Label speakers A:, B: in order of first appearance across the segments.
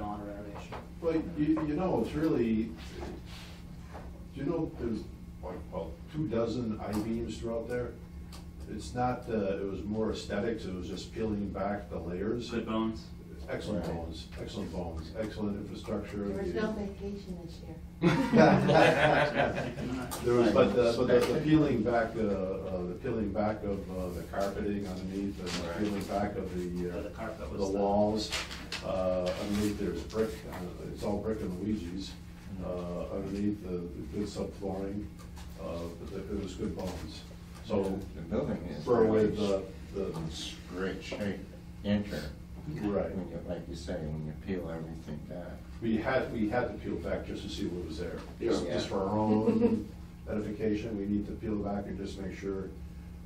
A: renovation.
B: Well, you, you know, it's really, do you know, there's like, about two dozen I-beams throughout there? It's not, uh, it was more aesthetics, it was just peeling back the layers.
C: Good bones.
B: Excellent bones, excellent bones, excellent infrastructure.
D: There was no vacation this year.
B: There was, but, uh, but the- the peeling back, uh, uh, the peeling back of uh, the carpeting underneath, and the peeling back of the,
C: So the
B: uh,
C: carpet was
B: the
C: the-
B: walls. Uh, underneath there's brick, uh, it's all brick and Luigi's, uh, underneath the, the good subflooring, uh, but the- it was good bones. So,
E: The building is.
B: for
E: really
B: with the, the,
E: It's great shape, enter,
B: right,
E: when you, like you say, when you peel everything back.
B: we had, we had to peel back just to see what was there. Just,
E: Yeah.
B: just for our own edification, we need to peel back and just make sure it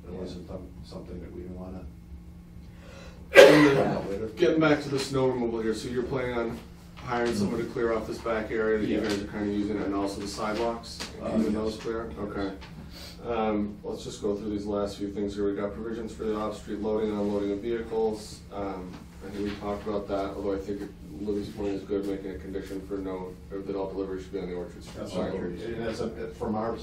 E: Yeah.
B: wasn't some- something that we didn't wanna
F: Getting back to the snow removal here, so you're planning on hiring someone to clear off this back area that you
B: Yeah.
F: guys are kind of using, and also the sidewalks,
B: Uh,
F: keeping
B: yes.
F: those clear? Okay. Um, let's just go through these last few things here. We got provisions for the off-street loading and unloading of vehicles. Um, I think we talked about that, although I think Libby's point is good, making a condition for no, or that all deliveries should be on the Orchard Street
B: That's what,
F: side.
B: we're- and that's a, from our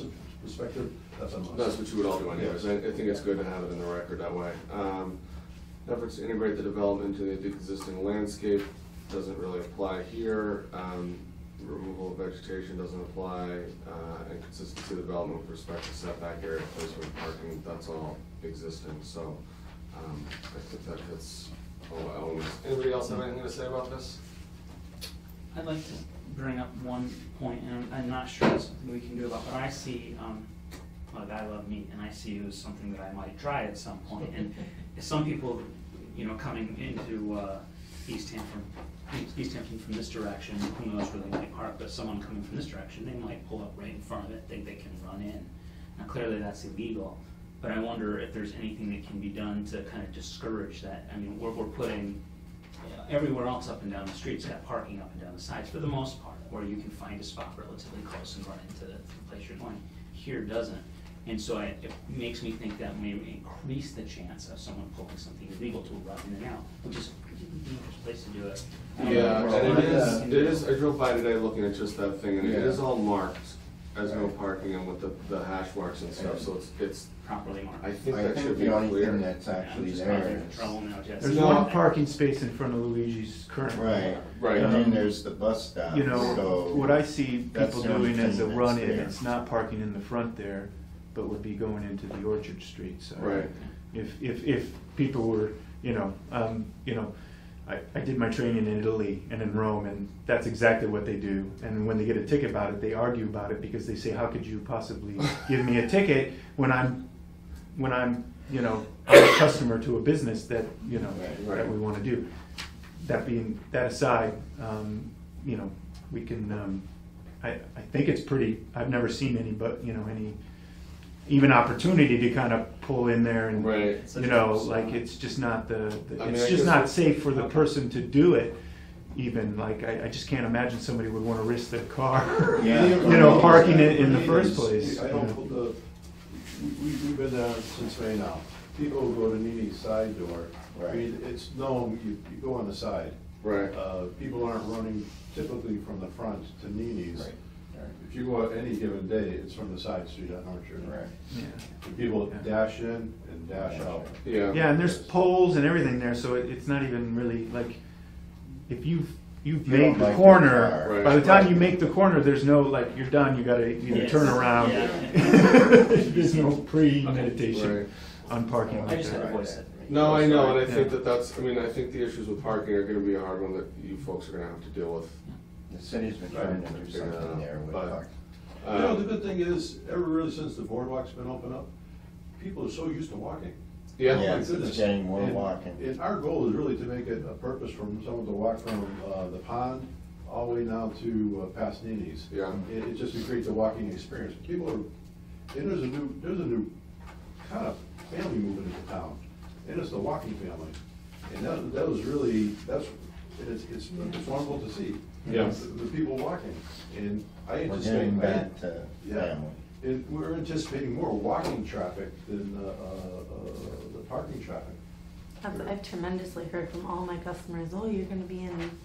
B: perspective, that's a must.
F: That's what you would all do anyways, I, I think it's good to have it in the record that way. Um, Efforts to integrate the development into the existing landscape doesn't really apply here. Um, Removal of vegetation doesn't apply, uh, and consistency of development with respect to setback area, placement, parking, that's all existing, so, um, I think that hits all elements. Anybody else have anything to say about this?
C: I'd like to bring up one point, and I'm not sure it's something we can do about, but I see, um, look, I love meat, and I see it as something that I might try at some point, and some people, you know, coming into, uh, East Hampton, East Hampton from this direction, who knows where they might park, but someone coming from this direction, they might pull up right in front of it, think they can run in. Now, clearly, that's illegal, but I wonder if there's anything that can be done to kind of discourage that, I mean, we're, we're putting yeah, everywhere else up and down the street's got parking up and down the sides for the most part, where you can find a spot relatively close and run into the place you're going. Here doesn't. And so I, it makes me think that may increase the chance of someone pulling something illegal to run in and out, which is a dangerous place to do it.
F: Yeah, and it is,
C: Um,
F: it is, I drove by today looking at just that thing, and it
E: Yeah.
F: is all marked as no
E: Right.
F: parking and with the, the hash marks and stuff, so it's, it's,
C: Properly marked.
F: I think
E: I
F: that
E: think
F: should be
E: the only thing
F: clear.
E: that's
C: Yeah, I'm
E: actually
C: just
E: there
C: causing
E: is.
C: Trouble now, Jess.
A: There's
F: No.
A: one parking space in front of Luigi's currently.
E: Right,
F: Right.
E: and then there's the bus stop,
A: Um, You know,
E: so.
A: what I see
E: that's
A: people
E: the only
A: doing as a
E: thing that's
A: run-in,
E: there.
A: it's not parking in the front there, but would be going into the Orchard Street side.
F: Right.
A: If, if, if people were, you know, um, you know, I, I did my training in Italy and in Rome, and that's exactly what they do. And when they get a ticket about it, they argue about it because they say, how could you possibly give me a ticket when I'm, when I'm, you know, a customer to a business that, you know,
E: Right,
F: right.
A: that we wanna do. That being, that aside, um, you know, we can, um, I, I think it's pretty, I've never seen any, but, you know, any, even opportunity to kind of pull in there and,
F: Right.
C: Such
A: you
C: a
A: know,
C: small-
A: like, it's just not the, the-
F: I mean, I
A: it's
F: guess-
A: just not safe for the
C: Okay.
A: person to do it even, like, I, I just can't imagine somebody would wanna risk their car.
E: Yeah.
A: You know, parking it in the first
B: Meetings,
A: place.
B: I don't put the, we, we- we've been there since May now. People who go to Nini's side door. I
E: Right.
B: mean, it's, no, you, you go on the side.
F: Right.
B: Uh, people aren't running typically from the front to Nini's.
E: Right, right,
B: If you go out any given day, it's from the side street on Orchard.
E: right.
A: Yeah.
B: And People dash in and dash out.
F: Yeah.
A: Yeah, and there's poles and everything there, so it, it's not even really, like, if you've, you've
E: You don't
A: made
E: like
A: the
E: your
A: corner,
F: car.
A: by the
F: Right.
A: time you make the corner, there's no, like, you're done, you gotta either
C: Yes.
A: turn around.
C: Yeah.
A: There's no premeditation
F: Right.
A: on parking
C: I
A: like
C: just had to
A: that.
C: voice it.
F: No, I know, and I think
A: Yeah.
F: that that's, I mean, I think the issues with parking are gonna be a hard one that you folks are gonna have to deal with.
E: The city's been trying to do something there with
F: But-
E: parking.
B: You know, the
F: Um,
B: good thing is, ever really since the boardwalk's been opened up, people are so used to walking.
F: Yeah,
E: Yeah.
B: My goodness.
E: it's getting more
B: And-
E: walking.
B: And our goal is really to make it a purpose for someone to walk from uh, the pond all the way now to uh, past Nini's.
F: Yeah.
B: It, it just to create the walking experience. People are, and there's a new, there's a new kind of family moving into town, and it's the walking family. And that, that was really, that's, and it's, it's it's wonderful to see.
F: Yeah.
B: The the people walking, and I
E: We're
B: anticipate.
E: getting
B: I-
E: back to
B: yeah.
E: family.
B: And we're anticipating more walking traffic than uh, uh, uh, the parking traffic.
D: I've I've tremendously heard from all my customers, oh, you're gonna be in